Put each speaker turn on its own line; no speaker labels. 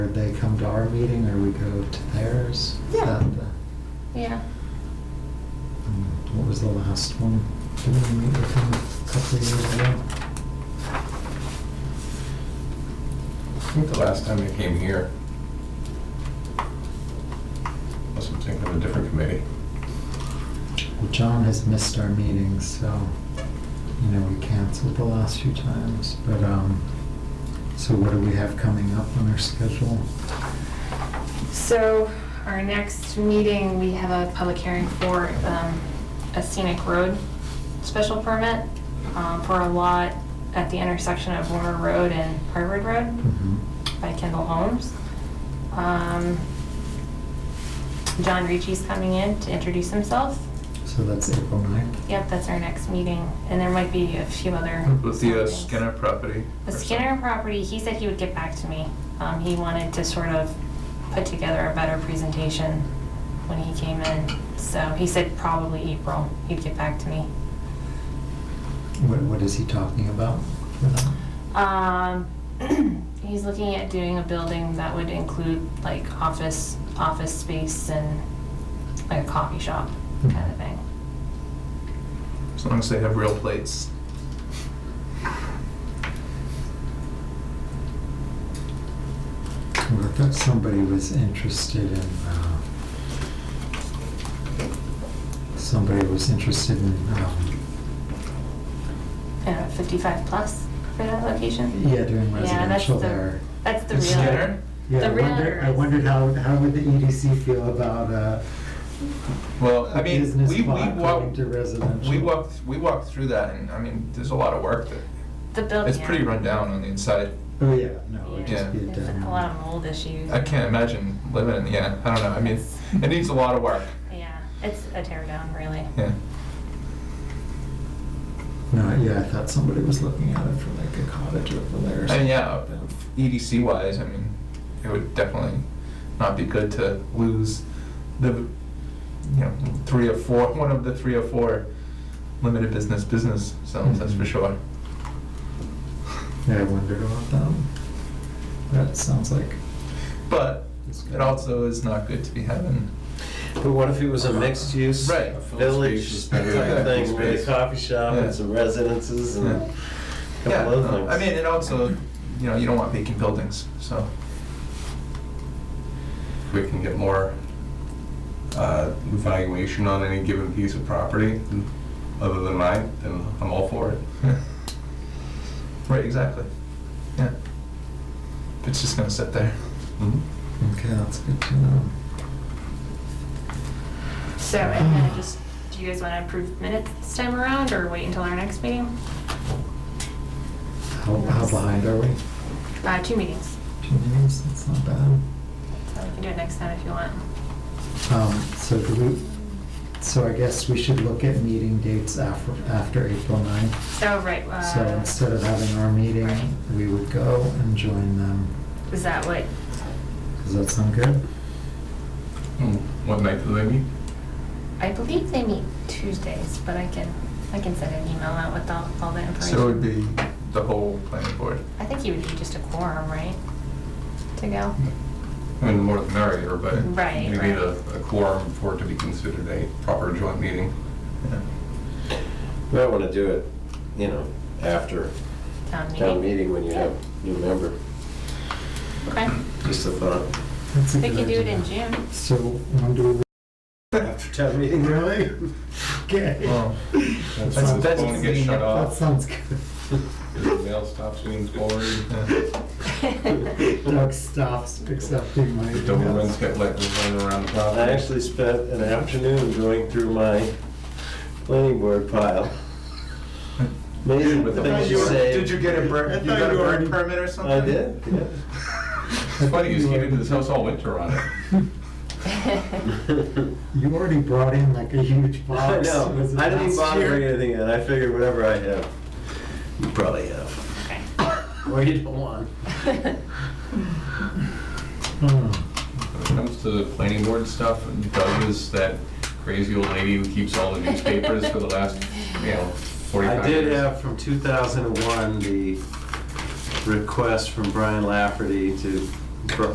to our meeting or we go to theirs?
Yeah.
That the-
Yeah.
Mm, What was the last one? Did we meet with him a couple of years ago?
I think the last time they came here. Must have taken a different committee.
Well, John has missed our meetings, so, you know, we canceled the last few times, but, um, so what do we have coming up on our schedule?
So our next meeting, we have a public hearing for um, a scenic road special permit um, for a lot at the intersection of Warner Road and Harvard Road
Mhm.
by Kendall Holmes. Um, John Ricci's coming in to introduce himself.
So that's April 9th.
Yep, that's our next meeting, and there might be a few other.
With the uh,
things.
Skinner property?
The
or
Skinner property, he said he would get back to me. Um, he wanted to sort of put together a better presentation when he came in. So he said probably April, he'd get back to me.
What, what is he talking about for that?
Um, he's looking at doing a building that would include like office, office space and like a coffee shop
Hmm.
kind of thing.
something? As long as they have real plates.
Well, I thought somebody was interested in, uh, somebody was interested in, um,
I don't know, 55 plus for that location?
yeah, doing
Yeah, that's
residential
the,
there.
that's the
In
real.
Skinner?
Yeah, I
the
wonder, I
realtors.
wondered how, how would the EDC feel about, uh,
Well,
a
I mean,
business
we, we
block going
walked,
to residential?
we walked, we walked through that and, I mean, there's a lot of work that,
The building.
it's pretty run down on the inside.
Oh, yeah, no, it'd
Yeah,
just be a
there's a
demo.
lot of mold issues.
I can't imagine living in, yeah, I don't know, I mean, it needs a lot of work,
Yeah, it's a tear down, really.
yeah.
No, yeah, I thought somebody was looking at it for like a cottage over there. or
And yeah,
something.
EDC wise, I mean, it would definitely not be good to lose the, you know, three or four, one of the three or four limited business business zones, that's for
Mhm.
sure.
Yeah, I wondered about that. That sounds like.
But it also is not good to be having,
But what if it was a mixed use?
Right.
Village type
Yeah.
thing with a coffee shop
Yeah.
and some residences and
Yeah.
a
yeah,
couple other
no,
things.
I mean, and also, you know, you don't want vacant buildings, so.
We can get more uh, valuation on any given piece of property other than mine, then I'm all for it.
yeah. Right, exactly, yeah. It's just gonna sit there.
Mm-hmm.
Okay, that's good to know.
So, and then just, do you guys want to approve minutes this time around, or wait until our next meeting?
How, how behind are we?
Uh, two meetings,
Two meetings, that's not bad.
so we can do it next time if you want.
Um, so do we, so I guess we should look at meeting dates after, after April ninth.
So, right,
So
uh,
instead of having our meeting,
Right.
we would go and join them.
is that what,
Does that sound good?
Hmm. What night do they meet?
I believe they meet Tuesdays, but I can, I can send an email out with all, all the information.
So it would be the whole planning board.
I think you would need just a quorum, right, to go?
Mm.
I mean, the more the merrier, but
Right,
you
right.
need a a quorum for it to be considered a proper joint meeting.
Yeah.
You might want to do it, you know, after
Town meeting?
town meeting when you have new member,
Okay,
just a thought.
That's a
we
good
can do it in
idea.
June.
So when do we?
After town meeting,
Really? Okay.
Well,
That's
when
when
the
it's going to get shut
That
Uh,
off,
sounds good.
the mail stops being forwarded.
Doug stops accepting my
The Dobermans
emails.
get let run around the
I
property.
actually spent an afternoon going through my planning board pile. Amazing
With the-
things
you
you
were-
say.
Did you get a
I
bird, you
thought
got a
you
bird
already-
permit or something?
I did,
It's funny, you just came into this house all winter on it.
yeah.
You already brought in like a huge
I
box.
know.
Was it
I didn't even
last
bother
year?
bringing anything in. I figured whatever I have, you probably have.
Okay.
Or you don't want.
Hmm.
When it comes to the planning board stuff, Doug is that crazy old lady who keeps all the newspapers for the last, you know,
I
45 years.
did have from 2001 the request from Brian Lafferty to, for